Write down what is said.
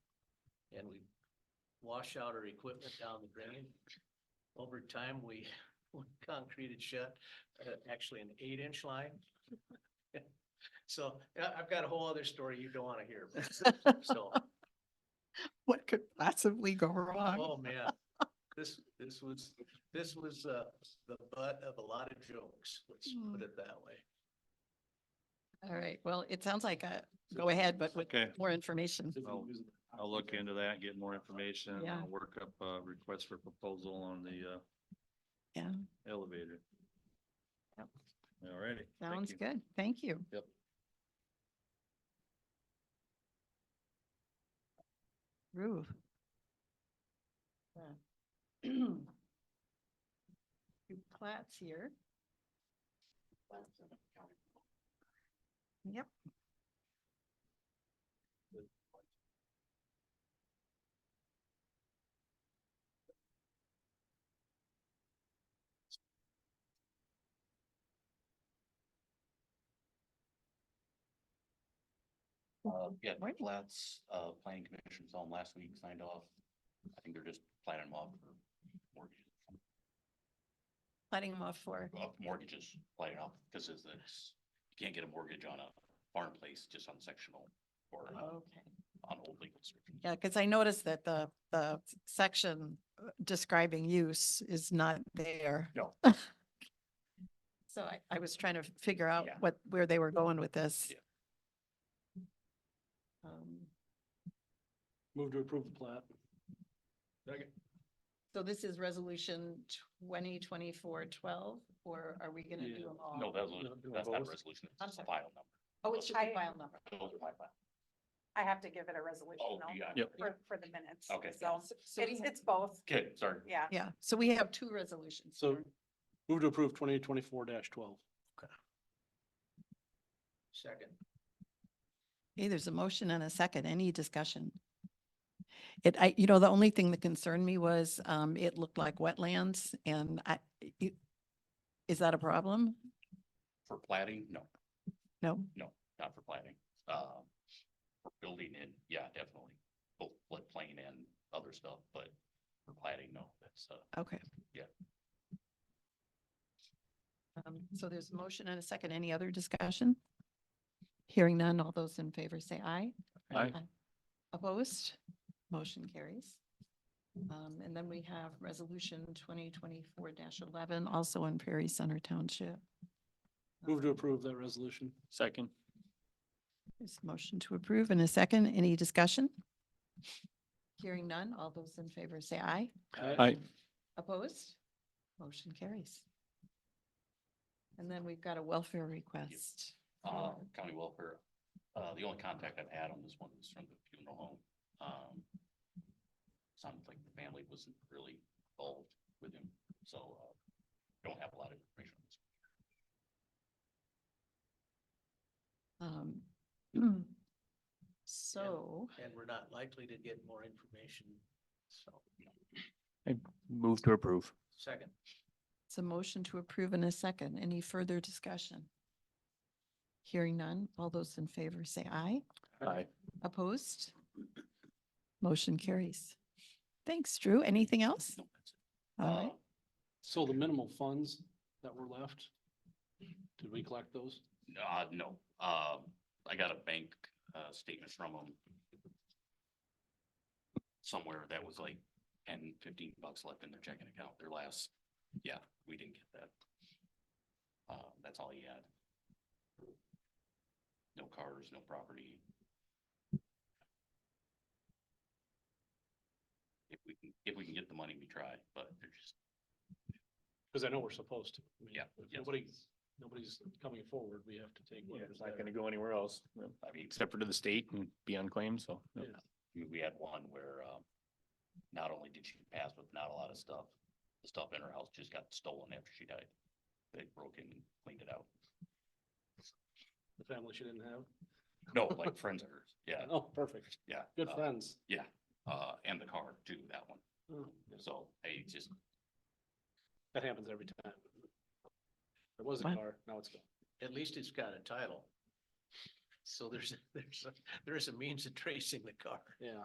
and we wash out our equipment down the drain. Over time, we we concreted shut, uh, actually an eight inch line. So I- I've got a whole other story you don't want to hear. but- So, What could possibly go wrong? oh man, this, this was, this was uh, the butt of a lot of jokes, let's put Mm. it that way. All right, well, it sounds like a go ahead, but with Okay, more information. I'll, I'll look into that, get more information, and Yeah. I'll work up a request for proposal on the, uh, Yeah. Elevator. Yep. All righty. thank Sounds you. good. Thank you. Yep. Roof. Two plats here. Yep. Uh, yeah, Right. plats, uh, planning commission saw them last week, signed off. I think they're just planning them off for mortgages, Letting them off for, off mortgages, planning off, because it's, it's- you can't get a mortgage on a farm place, just on sectional or on- okay. on old legal description. Yeah, because I noticed that the, the section uh, describing use is not there. No. So I, I was trying to figure out Yeah. what, where they were going with this. Yeah. Um, Move to approve the plat. So this is resolution twenty twenty-four twelve, or are we gonna Yeah. do them all? No, that's, No, do that's not a both. resolution, I'm it's just sorry. a file number. Oh, it's just the I- file number. Those are my file. I have to give it a resolution Oh, though, you got it. Yep. for, for the minutes. Okay. So So we it's, have- it's both, Okay, sorry. yeah. Yeah, so we have two resolutions. So here. move to approve twenty twenty-four twelve. Second. Okay, there's a motion and a second. Any discussion? It, I, you know, the only thing that concerned me was, um, it looked like wetlands and I, it- is that a problem? For plating, no, No? not for plating. Um, for building in, yeah, definitely, both floodplain and other stuff, but for plating, no, that's, uh, Okay. Yeah. Um, so there's a motion and a second. Any other discussion? Hearing none, all those in favor say aye. Aye. Opposed? Motion carries. Um, and then we have resolution twenty twenty-four eleven, also in Prairie Center Township. Move to approve that resolution. Second. There's a motion to approve and a second. Any discussion? Hearing none, all those in favor say aye. Aye. Opposed? Motion carries. And then we've got a welfare request. uh, for- county welfare. Uh, the only contact I've had on this one is from the funeral home. Um, sounds like the family wasn't really involved with him, so, uh, don't have a lot of information on this. um, So, And we're not likely to get more information, so, Move to approve. second. it's a motion to approve in a second. Any further discussion? Hearing none, all those in favor say aye. Aye. Opposed? Motion carries. Thanks, Drew. Anything else? No, that's it. All right. Uh, So the minimal funds that were left, did we collect those? Uh, no, um, I got a bank, uh, statement from them. Somewhere that was like 10, 15 bucks left in their checking account, their last, yeah, we didn't get that. Uh, that's all he had. No cars, no property. If we can, if we can get the money, we try, but they're just, Because I know we're supposed to. I mean, Yeah, If yeah. nobody's, nobody's coming forward, we have to take It's whatever's not there. gonna go anywhere else, I mean, except for to the state and be unclaimed, so. Yeah. I mean, we had one where, um, not only did she pass with not a lot of stuff, the stuff in her house just got stolen after she died. They broke in and cleaned it out. The family she didn't have. No, like friends of hers. Yeah, Oh, perfect. yeah. Good uh, friends. Yeah, uh, and the car too, that one. Oh, So I just, That happens every time. There was a Wow. car, now it's gone. At least it's got a title. So there's, there's, a- there's a means of tracing the car. Yeah.